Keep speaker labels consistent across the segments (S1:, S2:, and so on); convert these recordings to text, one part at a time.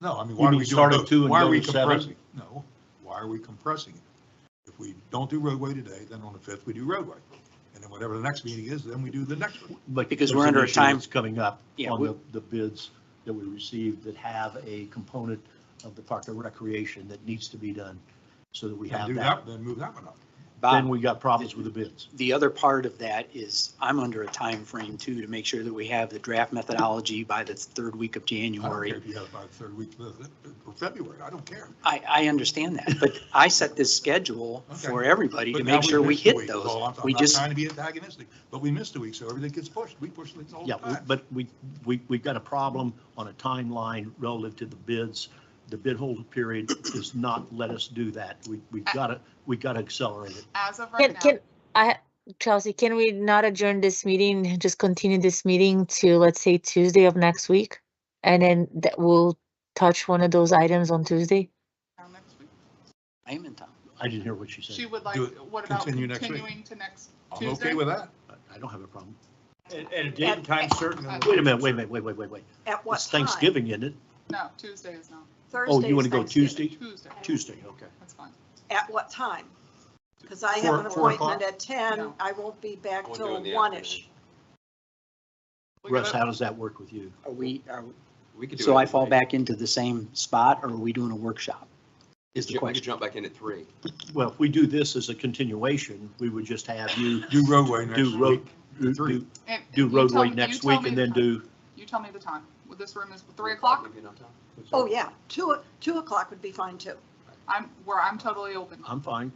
S1: No, I mean, why
S2: You
S1: are
S2: mean
S1: we doing,
S2: start at
S1: both?
S2: two and
S1: why
S2: go
S1: are we
S2: to seven?
S1: compressing? No, why are we compressing it? If we don't do roadway today, then on the fifth, we do roadway. And then whatever the next meeting is, then we do the next one.
S2: But
S3: Because
S2: there's
S3: we're
S2: an
S3: under a
S2: issue
S3: time-
S2: that's Coming up
S3: Yeah,
S2: on
S3: we-
S2: the, the bids that we received that have a component of the Park and Recreation that needs to be done so that we
S1: And
S2: have
S1: do
S2: that.
S1: that, then move that one up.
S2: Then
S3: Bob,
S2: we got problems with the bids.
S3: the other part of that is I'm under a time frame too, to make sure that we have the draft methodology by the third week of
S1: I don't care
S3: January.
S1: if you have it by the third week of February, I don't care.
S3: I, I understand that, but I set this schedule for everybody
S1: But
S3: to
S1: now
S3: make sure we
S1: missed a
S3: hit
S1: week, is all
S3: those.
S1: I'm- I'm
S3: We
S1: not
S3: just,
S1: Trying to be antagonistic, but we missed a week, so everything gets pushed. We push things all the
S2: Yeah, we-
S1: time.
S2: but we, we, we've got a problem on a timeline relative to the bids. The bid holder period does not let us do that. We, we've got to, we got to accelerate it.
S4: As of right
S5: Can,
S4: now.
S5: can, I, Chelsea, can we not adjourn this meeting, and just continue this meeting to, let's say, Tuesday of next week? And then that will touch one of those items on Tuesday?
S4: Now next week.
S3: I'm in time.
S2: I didn't hear what you
S4: She
S2: said.
S4: would like,
S1: Do it.
S4: what about
S1: Continue next week.
S4: continuing to next
S1: I'm
S4: Tuesday?
S1: okay with that.
S2: I- I don't have a problem.
S6: At, at a date and time certain. on the-
S2: Wait a minute, wait a minute, wait, wait, wait, wait.
S7: At what
S2: It's
S7: time?
S2: Thanksgiving, isn't it?
S4: No, Tuesday is not.
S2: Oh, you want to go
S7: Thursday's Thanksgiving.
S2: Tuesday?
S4: Tuesday,
S2: Tuesday, okay.
S4: that's fine.
S7: At what time? Because I
S1: Four-
S7: have an
S1: four o'clock?
S7: appointment at ten.
S4: No.
S7: I won't be back
S8: We'll do it
S7: till
S8: in the
S7: one-ish.
S4: We
S2: Russ,
S4: gotta-
S2: how does that work with you?
S3: Are we, are,
S8: We could do
S3: so
S8: it
S3: I
S8: at
S3: fall
S8: three.
S3: back into the same spot or are we doing a workshop? Is the
S8: Ju- We could
S3: question.
S8: jump back in at three.
S2: Well, if we do this as a continuation, we would just have you
S1: Do roadway next
S2: do road,
S1: week.
S2: do-
S1: Three.
S2: do,
S4: And- and
S2: do
S4: you tell
S2: roadway
S4: me- you
S2: next
S4: tell
S2: week
S4: me
S2: and
S4: the
S2: then
S4: time.
S2: do,
S4: You tell me the time. Well, This room is three o'clock.
S8: Give you enough time?
S7: Oh, yeah, two, two o'clock would be fine too.
S4: I'm, where I'm totally open.
S2: I'm fine,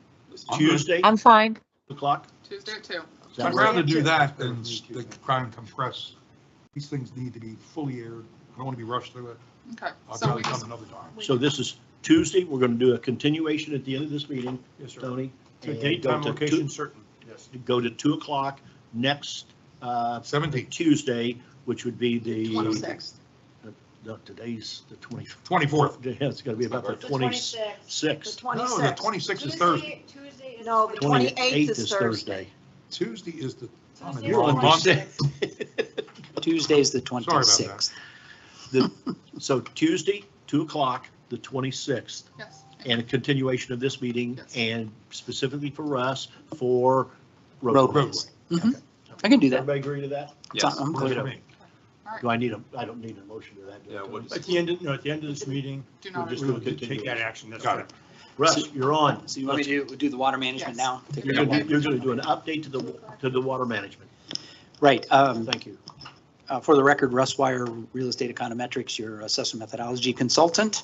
S1: I'm good.
S2: Tuesday,
S5: I'm fine.
S2: o'clock?
S4: Tuesday at two.
S2: Does that
S1: I'd
S2: work?
S1: rather do that than
S2: Me
S1: s-
S2: too.
S1: than try and compress. These things need to be fully aired. I don't want to be rushed through it.
S4: Okay,
S1: I'll
S4: so
S1: probably
S4: we
S1: come
S4: just,
S1: another time.
S2: So this is Tuesday, we're going to do a continuation at the end of this meeting,
S6: Yes, sir.
S2: Tony.
S6: To
S2: and
S6: date,
S2: go
S6: time,
S2: to two-
S6: location certain, yes.
S2: Go to 2 o'clock next uh,
S1: Seventeenth.
S2: Tuesday, which would be the, Uh,
S7: Twenty-sixth.
S2: no, today's the 24th.
S1: 24th.
S2: It's going to be about the 26th.
S7: The
S1: No, the
S7: twenty-sixth.
S1: 26th is Thursday.
S9: Tuesday is.
S7: No, the
S2: 28th
S7: twenty-eighth is Thursday.
S1: Tuesday is the,
S9: Tuesday is
S1: you're on
S9: the
S1: Monday.
S9: 26th.
S3: Tuesday's the
S1: about that.
S3: 26th.
S2: So Tuesday, 2 o'clock, the 26th,
S4: yes.
S2: and a continuation of this meeting
S4: Yes.
S2: and specifically for us for
S3: Roadway.
S2: roadway.
S1: roadway.
S3: I can do that.
S2: Everybody agree to that?
S8: Yes.
S3: I'm
S1: Works
S3: clear.
S1: for me.
S4: All
S2: Do
S4: right,
S2: I need a, I don't need a motion to that. do I,
S8: Yeah,
S2: Tony?
S8: what is-
S6: At the end, of- no, at the end of this meeting,
S4: do
S6: we'll
S4: not.
S6: just
S2: we're
S6: we'll
S2: doing
S6: just take that action. That's
S1: Got it.
S2: Russ, you're on.
S3: So you want me to do- do the water management
S4: Yes.
S3: now? Take
S2: You're
S3: care of
S2: going
S3: that.
S2: to do an update to the, to the water management.
S3: Right, um,
S2: Thank you.
S3: uh, for the record, Russ Wire, Real Estate Econometrics, your assessment methodology consultant.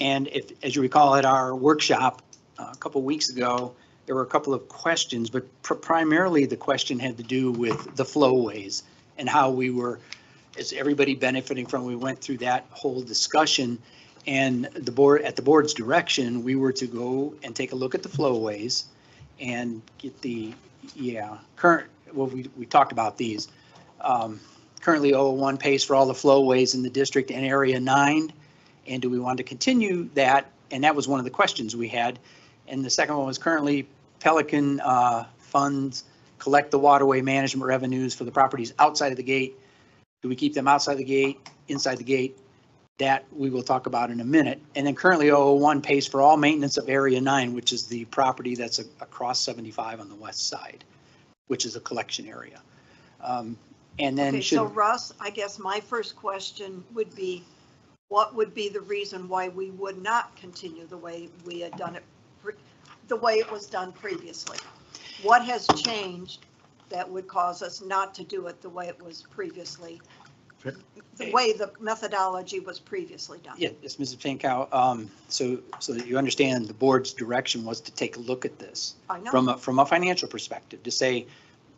S3: And if, as you recall, at our workshop uh, a couple weeks ago, there were a couple of questions, but pr- primarily the question had to do with the flowways and how we were, is everybody benefiting from, we went through that whole discussion. And the board, at the board's direction, we were to go and take a look at the flowways and get the, yeah, current, well, we, we talked about these. Um, Currently, 001 pays for all the flowways in the district and Area 9. And do we want to continue that? And that was one of the questions we had. And the second one was currently Pelican uh, funds collect the waterway management revenues for the properties outside of the gate. Do we keep them outside the gate, inside the gate? That we will talk about in a minute. And then currently 001 pays for all maintenance of Area 9, which is the property that's a- across 75 on the west side, which is a collection area. Um, And then
S7: Okay,
S3: should.
S7: so Russ, I guess my first question would be, what would be the reason why we would not continue the way we had done it, pre- the way it was done previously? What has changed that would cause us not to do it the way it was previously? The way the methodology was previously done?
S3: Yeah, yes, Mrs. Pinkow, um, so, so that you understand, the board's direction was to take a look at this
S7: I know,
S3: from a, from a financial perspective, to say,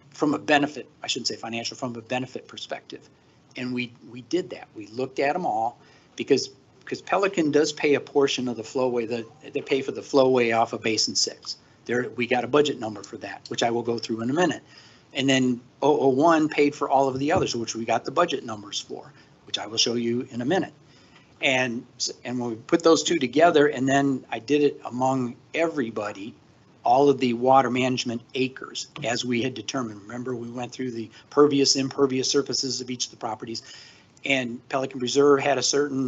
S3: from a benefit, I shouldn't say financial, from a benefit perspective. And we, we did that. We looked at them all because, because Pelican does pay a portion of the flowway, the, they pay for the flowway off of Basin Six. There, we got a budget number for that, which I will go through in a minute. And then 001 paid for all of the others, which we got the budget numbers for, which I will show you in a minute. And, s- and when we put those two together, and then I did it among everybody, all of the water management acres as we had determined. Remember, we went through the pervious, impervious surfaces of each of the properties. And Pelican Reserve had a certain